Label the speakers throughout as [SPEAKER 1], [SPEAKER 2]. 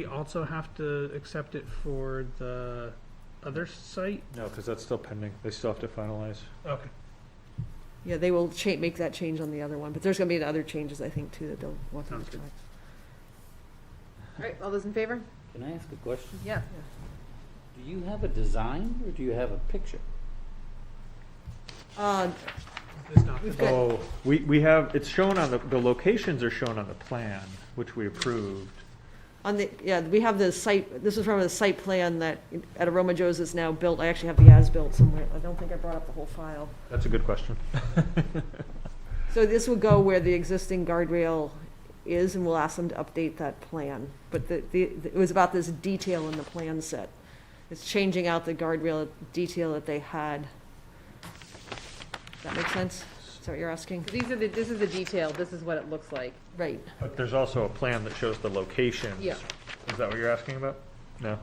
[SPEAKER 1] We also have to accept it for the other site?
[SPEAKER 2] No, because that's still pending. They still have to finalize.
[SPEAKER 1] Okay.
[SPEAKER 3] Yeah, they will cha, make that change on the other one, but there's gonna be other changes, I think, too, that they'll want them
[SPEAKER 1] Sounds
[SPEAKER 3] to
[SPEAKER 1] good.
[SPEAKER 3] try.
[SPEAKER 4] All right, all those in favor?
[SPEAKER 5] Can I ask a question?
[SPEAKER 4] Yeah.
[SPEAKER 5] Do you have a design or do you have a picture?
[SPEAKER 3] Uh,
[SPEAKER 1] It's not,
[SPEAKER 3] we've got,
[SPEAKER 2] Oh, we, we have, it's shown on the, the locations are shown on the plan, which we approved.
[SPEAKER 3] on the, yeah, we have the site, this is from a site plan that, at Aroma Joe's is now built, I actually have the as-built somewhere, I don't think I brought up the whole file.
[SPEAKER 2] That's a good question.
[SPEAKER 3] So this will go where the existing guardrail is, and we'll ask them to update that plan. But the, the, it was about this detail in the plan set. It's changing out the guardrail detail that they had. Does that make sense? Is that what you're asking?
[SPEAKER 4] So these are the, this is the detail, this is what it looks like.
[SPEAKER 3] Right.
[SPEAKER 2] But there's also a plan that shows the locations.
[SPEAKER 4] Yeah.
[SPEAKER 2] Is that what you're asking about? No?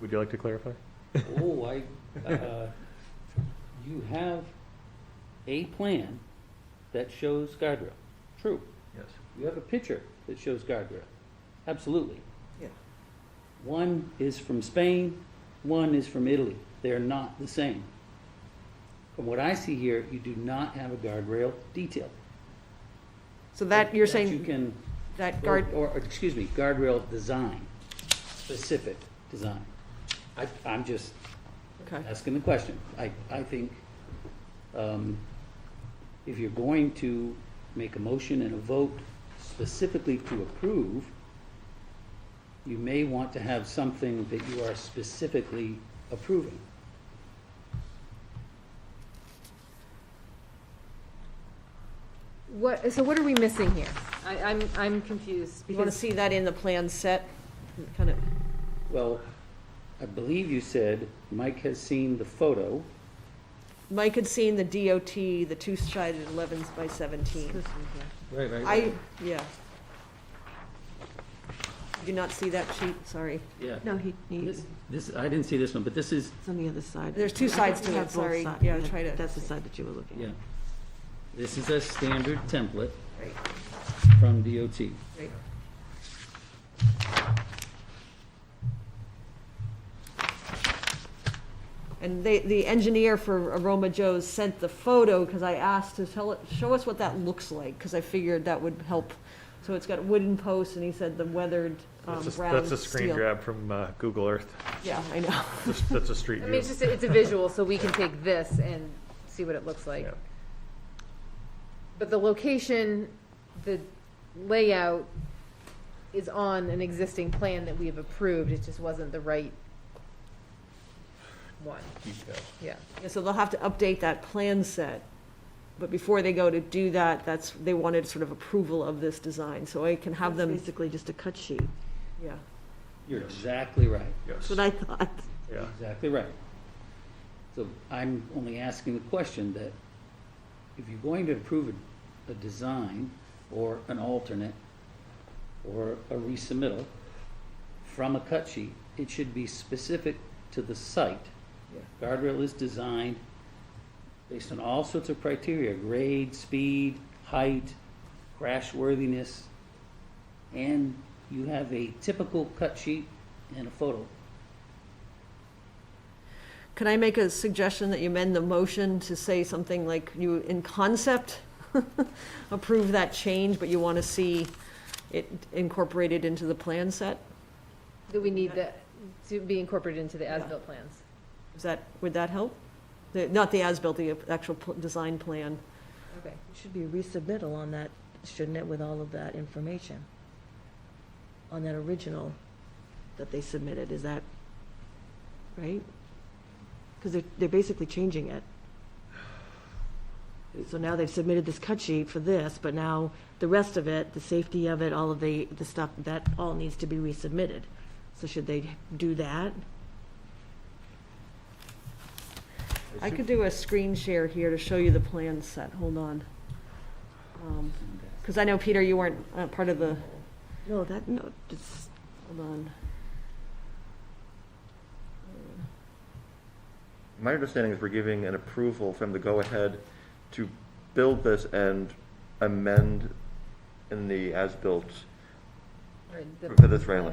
[SPEAKER 2] Would you like to clarify?
[SPEAKER 5] Oh, I, uh, you have a plan that shows guardrail. True.
[SPEAKER 2] Yes.
[SPEAKER 5] You have a picture that shows guardrail. Absolutely.
[SPEAKER 3] Yeah.
[SPEAKER 5] One is from Spain, one is from Italy. They're not the same. From what I see here, you do not have a guardrail detail.
[SPEAKER 3] So that, you're
[SPEAKER 5] you
[SPEAKER 3] saying
[SPEAKER 5] can
[SPEAKER 3] that
[SPEAKER 5] Or,
[SPEAKER 3] guard,
[SPEAKER 5] or, excuse me, guardrail design, specific design. I, I'm just
[SPEAKER 3] okay,
[SPEAKER 5] asking the question. I, I think, um, if you're going to make a motion and a vote specifically to approve, you may want to have something that you are specifically approving.
[SPEAKER 4] What, so what are we missing here? I, I'm, I'm confused
[SPEAKER 3] you want to
[SPEAKER 4] because,
[SPEAKER 3] see that in the plan set? Kind of,
[SPEAKER 5] Well, I believe you said Mike has seen the photo.
[SPEAKER 3] Mike had seen the DOT, the two-sided 11s by 17.
[SPEAKER 6] Right, right.
[SPEAKER 3] I, yeah. You Do not see that sheet, sorry.
[SPEAKER 5] Yeah.
[SPEAKER 7] No, he, he-
[SPEAKER 5] This, this, I didn't see this one, but this is,
[SPEAKER 7] it's on the other side.
[SPEAKER 3] There's two
[SPEAKER 7] I think
[SPEAKER 3] sides
[SPEAKER 7] we
[SPEAKER 3] to
[SPEAKER 7] have
[SPEAKER 3] it,
[SPEAKER 7] both
[SPEAKER 3] sorry.
[SPEAKER 7] sides.
[SPEAKER 3] Yeah, try to-
[SPEAKER 7] That's the side that you were looking
[SPEAKER 5] Yeah.
[SPEAKER 7] at.
[SPEAKER 5] This is a standard template
[SPEAKER 3] Right.
[SPEAKER 5] from DOT.
[SPEAKER 3] Right. And they, the engineer for Aroma Joe's sent the photo, because I asked to tell it, show us what that looks like, because I figured that would help. So it's got wooden posts, and he said the weathered, um,
[SPEAKER 2] That's a,
[SPEAKER 3] brown
[SPEAKER 2] that's a screen
[SPEAKER 3] steel.
[SPEAKER 2] grab from, uh, Google Earth.
[SPEAKER 3] Yeah, I know.
[SPEAKER 2] That's- That's a street
[SPEAKER 4] I
[SPEAKER 2] view.
[SPEAKER 4] mean, it's just, it's a visual, so we can take this and see what it looks like.
[SPEAKER 2] Yeah.
[SPEAKER 4] But the location, the layout is on an existing plan that we have approved, it just wasn't the right one,
[SPEAKER 2] Detail.
[SPEAKER 4] yeah.
[SPEAKER 3] Yeah, So they'll have to update that plan set, but before they go to do that, that's, they wanted sort of approval of this design, so I can have
[SPEAKER 7] It's
[SPEAKER 3] them,
[SPEAKER 7] Basically just a cut sheet.
[SPEAKER 3] yeah.
[SPEAKER 5] You're exactly right,
[SPEAKER 2] Yes.
[SPEAKER 7] That's what I thought.
[SPEAKER 2] Yeah.
[SPEAKER 5] exactly right. So I'm only asking the question that if you're going to approve a, a design or an alternate or a resubmittal from a cut sheet, it should be specific to the site. Guardrail is designed based on all sorts of criteria, grade, speed, height, crash worthiness, and you have a typical cut sheet and a photo.
[SPEAKER 3] Can I make a suggestion that you amend the motion to say something like you, in concept, approve that change, but you want to see it incorporated into the plan set?
[SPEAKER 4] Do we need that to be incorporated into the as-built plans?
[SPEAKER 3] Is that, would that help? The- Not the as-built, the actual pl- design plan.
[SPEAKER 4] Okay.
[SPEAKER 7] It Should be a resubmittal on that, shouldn't it, with all of that information? On that original that they submitted, is that right? Because they're, they're basically changing it. So now they've submitted this cut sheet for this, but now the rest of it, the safety of it, all of the, the stuff, that all needs to be resubmitted. So should they do that?
[SPEAKER 3] I could do a screen share here to show you the plan set, hold on. Because I know, Peter, you weren't uh, part of the,
[SPEAKER 7] No, that, no, it's,
[SPEAKER 3] hold on.
[SPEAKER 6] My understanding is we're giving an approval from the go-ahead to build this and amend in the as-built
[SPEAKER 4] Or the-
[SPEAKER 6] for this railing.